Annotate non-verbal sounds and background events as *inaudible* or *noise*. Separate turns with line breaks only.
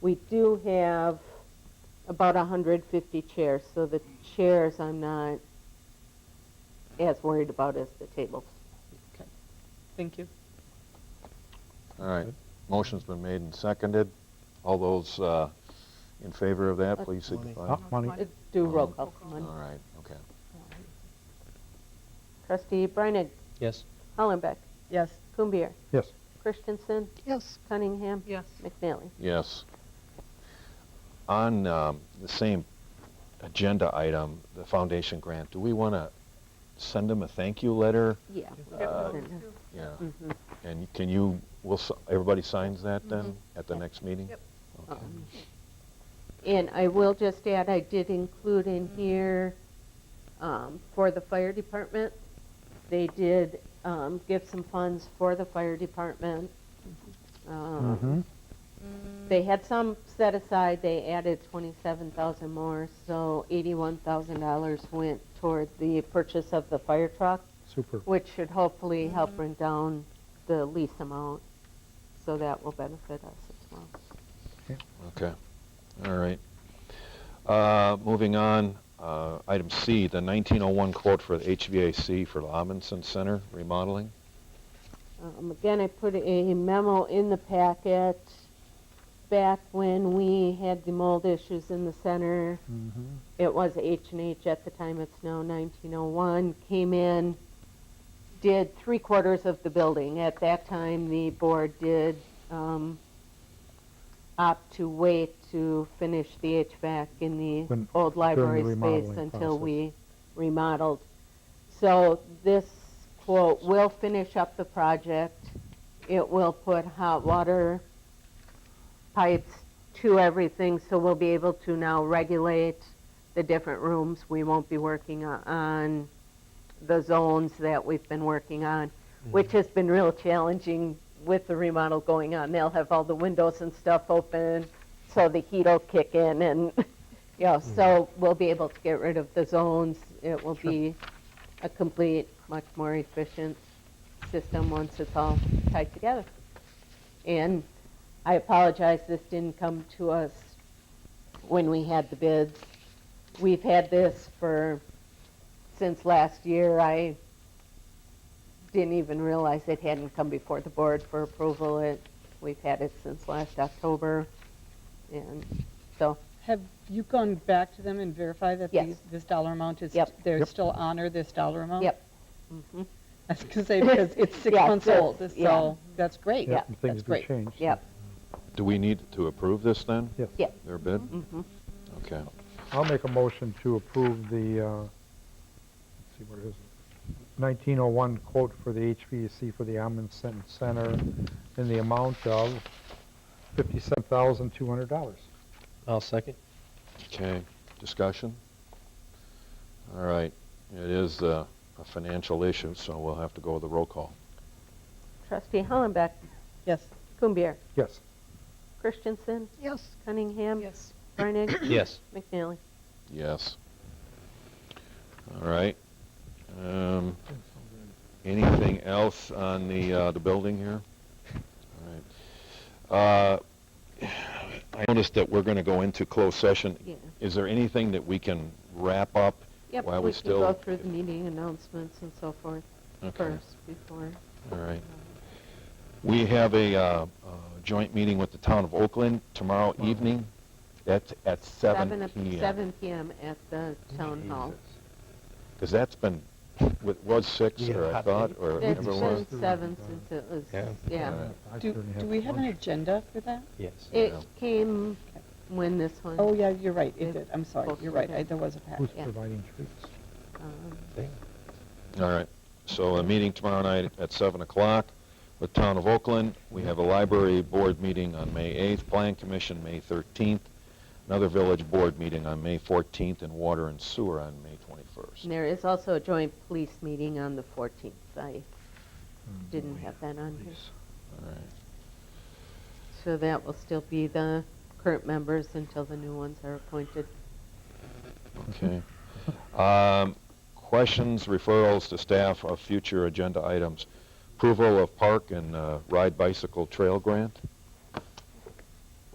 we do have about 150 chairs, so the chairs I'm not as worried about as the tables.
Thank you.
All right, motion's been made and seconded. All those uh, in favor of that, please signify.
Oh, money.
Uh, Do roll call, come
All
on.
right, okay.
Trustee Breinig,
Yes.
Hollenbeck,
Yes.
Kumbir,
Yes.
Christensen,
Yes.
Cunningham,
Yes.
McNally.
Yes. On um, the same agenda item, the foundation grant, do we want to send them a thank you letter?
Uh, Yeah.
Yeah.
Mm-hmm.
And can you, will, s- everybody signs that then at the next meeting?
Yep.
Okay.
Um, And I will just add, I did include in here, um, for the fire department, they did, um, give some funds for the fire department. Um,
Mm-hmm.
They had some set aside, they added twenty-seven thousand more, so eighty-one thousand dollars went toward the purchase of the fire truck,
Super.
which should hopefully help bring down the lease amount, so that will benefit us as well.
Okay, all right. Uh, Moving on, uh, item C, the 1901 quote for the HVAC for the Amundsen Center remodeling.
Um, Again, I put a memo in the packet back when we had the mold issues in the center.
Mm-hmm.
It was H and H at the time, it's now 1901, came in, did three quarters of the building. At that time, the board did um, opt to wait to finish the HVAC in the
When-
old library space
remodeling
until
process.
we remodeled. So this quote will finish up the project. It will put hot water pipes to everything, so we'll be able to now regulate the different rooms. We won't be working o- on the zones that we've been working on, which has been real challenging with the remodel going on. They'll have all the windows and stuff open, so the heat will kick in and, *laughs* you know, so we'll be able to get rid of the zones. It will be a complete, much more efficient system once it's all tied together. And I apologize, this didn't come to us when we had the bids. We've had this for, since last year. I didn't even realize it hadn't come before the board for approval. It, we've had it since last October. And so,
Have you gone back to them and verified that
Yes.
these, this dollar amount is,
Yep.
they're
Yep.
still honor this dollar amount?
Yep.
*laughs* I was gonna say, because it's six
Yeah,
months
so-
old,
yeah.
so that's great.
Yeah,
and
That's
Things do
great.
change. so-
yep,
Do we need to approve this then?
Yes.
Yeah.
Their bid?
mhm.
Okay.
I'll make a motion to approve the, uh, let's see, what is it? 1901 quote for the HVAC for the Amundsen Center in the amount of $57,200.
I'll second.
Okay, discussion? All right, it is uh, a financial issue, so we'll have to go with a roll call.
Trustee Hollenbeck,
Yes.
Kumbir,
Yes.
Christensen,
Yes.
Cunningham.
Yes.
Reinig,
Yes.
*coughs* McNally.
Yes. All right. Um, Anything else on the, uh, the building here? All right. Uh, I noticed that we're going to go into closed session.
Yeah.
Is there anything that we can wrap up?
Yep,
While we
we can go
still-
through the meeting announcements and so forth
Okay.
first before.
All right. We have a uh, uh, joint meeting with the town of Oakland tomorrow evening. That's at
o-
seven PM.
Seven PM at the town hall.
Because that's been, it was six, or I
Yeah.
thought, or
It's
whatever it was.
been seven since it was,
Yeah.
yeah.
I
Do,
certainly
do we have an
one.
agenda for that?
Yes.
It
Yeah.
came when this one.
Oh, yeah, you're right,
It-
it did, I'm sorry,
both
you're
were
right, I-
good.
there was a pack.
Who's
yeah.
providing treats?
um,
All right. So a meeting tomorrow night at 7 o'clock with Town of Oakland. We have a library board meeting on May 8th, Plan Commission May 13th, another village board meeting on May 14th, and water and sewer on May 21st.
and There is also a joint police meeting on the fourteenth. I didn't have that on here.
Mm, All right.
So that will still be the current members until the new ones are appointed.
Okay. Um, Questions, referrals to staff of future agenda items. Approval of park and uh, ride bicycle trail grant.